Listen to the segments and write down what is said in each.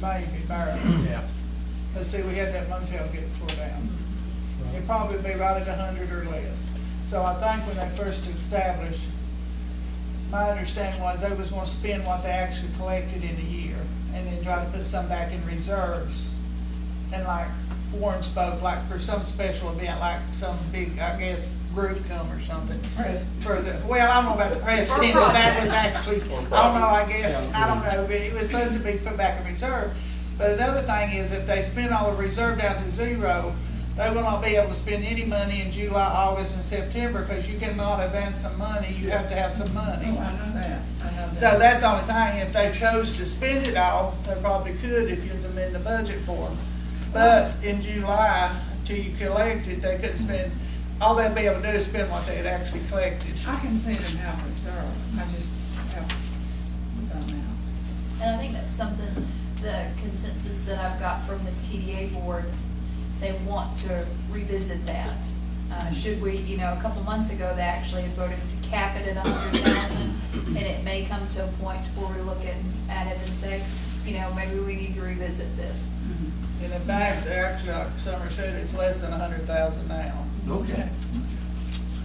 Miami Borough. Yeah. Because see, we had that motel get tore down. It'd probably be right at a hundred or less. So I think when they first established, my understanding was they was gonna spend what they actually collected in a year and then try to put some back in reserves. And like Warren spoke, like for some special event, like some big, I guess, group come or something. For the, well, I don't know about the president, but that was actually, I don't know, I guess, I don't know, but it was supposed to be put back in reserve. But another thing is if they spend all the reserve down to zero, they will not be able to spend any money in July, August, and September, because you cannot advance some money, you have to have some money. Oh, I know that, I know that. So that's the only thing, if they chose to spend it all, they probably could if you'd amend the budget for them. But in July, till you collect it, they couldn't spend, all they'd be able to do is spend what they had actually collected. I can see them have reserve, I just have, without now. And I think that's something, the consensus that I've got from the TDA board, they want to revisit that. Uh, Should we, you know, a couple months ago, they actually voted to cap it at a hundred thousand, and it may come to a point where we look at, at it and say, you know, maybe we need to revisit this. And in fact, they're actually, like Summer said, it's less than a hundred thousand now. Okay.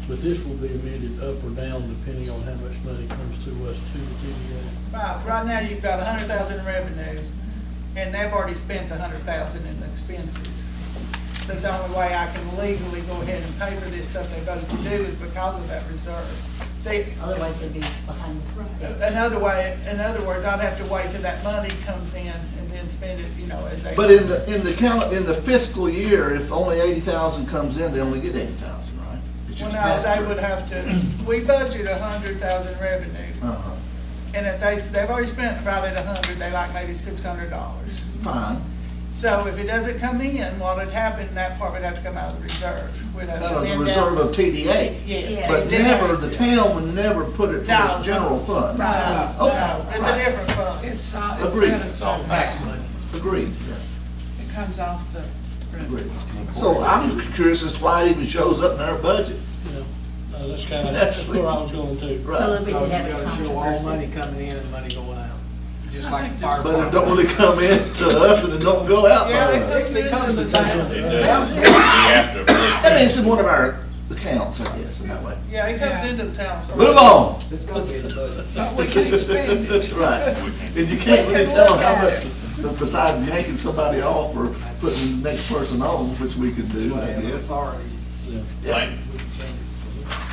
But this will be amended up or down depending on how much money comes to us to the Right, right now, you've got a hundred thousand in revenues, and they've already spent the hundred thousand in the expenses. But the only way I can legally go ahead and pay for this stuff they're supposed to do is because of that reserve. See, Otherwise it'd be behind us. Another way, in other words, I'd have to wait till that money comes in and then spend it, you know, as they. But in the, in the cal, in the fiscal year, if only eighty thousand comes in, they only get eighty thousand, right? It's Well, just no, passed they through. would have to, we budget a hundred thousand revenue, Uh-huh, and if they, they've already spent probably a hundred, they like maybe six hundred dollars. fine. So if it doesn't come in, what would happen, that part would have to come out of the reserve. We'd have to Out of the amend that. reserve of TDA. Yes. Yeah. But never, the town would never put it No. towards general fund. No, no, it's a Okay. different fund. It's, uh, it's Agreed. set aside. Agreed, yeah. It comes off the. Agreed. So I'm curious as to why it even shows up in our budget. TDA. Yeah. Uh, That's kind of, That's- that's where I was going to. So that Right. we Because can you have a gotta show all money controversy. coming in and money going out, just I like think the just- fire But it department. don't really come in to us and it don't go out by Yeah, they us. could use comes it. to town. It does. We have to approve. I mean, it's in one of our accounts, I guess, in that way. Yeah, it comes Yeah. into the town. Move on. It's gonna be in the budget. But we can expand it. Right. And you can't really tell how much, besides yanking somebody off or putting the next person on, which we could do, I Whatever guess. authority. Yeah. Yeah. Main-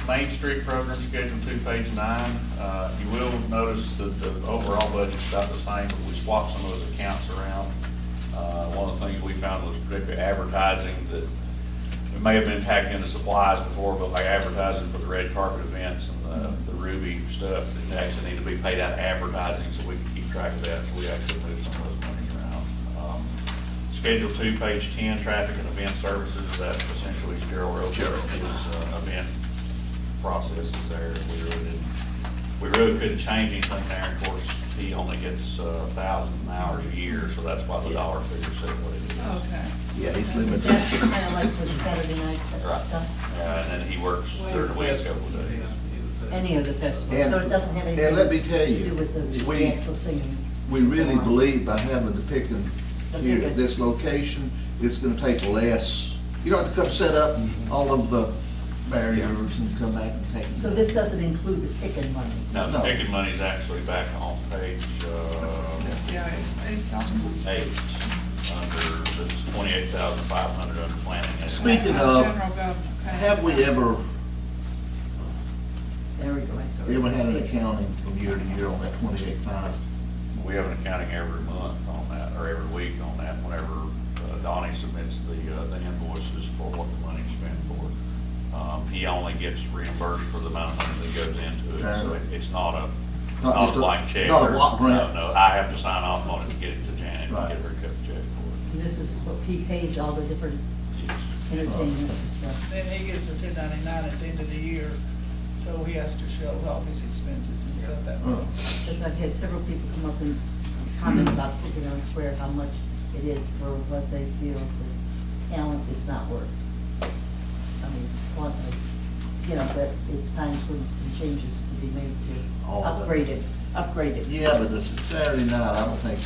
Main Street program, schedule two, page nine. Uh, You will notice that the overall budget's about the same, but we swapped some of those accounts around. Uh, One of the things we found was particularly advertising that, it may have been tacked into supplies before, but like advertising for the red carpet events and the- the Ruby stuff, it actually needed to be paid out of advertising so we could keep track of that, so we actually moved some of those monies around. Um, Schedule two, page ten, traffic and event services, that's essentially Gerald Road, his uh, event processes there. We really didn't, we really couldn't change anything there. Of course, he only gets a thousand hours a year, so that's why the dollar figure said what it is. Oh, Okay. Yeah, he's It's limited. actually kind of like for the Saturday night Right. stuff, Yeah, and then he works during the week a couple of days. any of the festivals, And- so it doesn't have anything. and let me tell To you, do with the- we- the actual singings. We really believe by having the picking here at this location, it's gonna take less. You don't have to come set up all of the barriers and come back and take. So this doesn't include the ticket money. Now, the No. ticket money's actually back on page, uh, Yeah, it's, it's on. eight, under, that's twenty-eight thousand five hundred under planning. and- Speaking of, General government, okay. Have we ever, There we go, I saw. it. ever had an accounting from year to year on that twenty-eight five? We have an accounting every month on that, or every week on that, whenever uh, Donnie submits the, uh, the invoices for what the money's spent for. Um, he only gets reimbursed for the amount of money that goes into it, so Fair. it- it's not a, it's Not not just a a- blank check. not a or- block grant. No, no, I have to sign off on it to get it to Janet, and Right. get her a cut check for And This is what he pays all the different it. Yes. entertainment and stuff. Then he gets a two ninety-nine at the end of the year, so he has to show all his expenses and stuff that way. Oh, Because I've had several people come up and comment about Picking on Square, how much it is for what they feel the talent is not worth. I mean, want, you know, that it's time for some changes to be made to All of it. upgrade it, upgrade it. Yeah, but the Saturday night, I don't think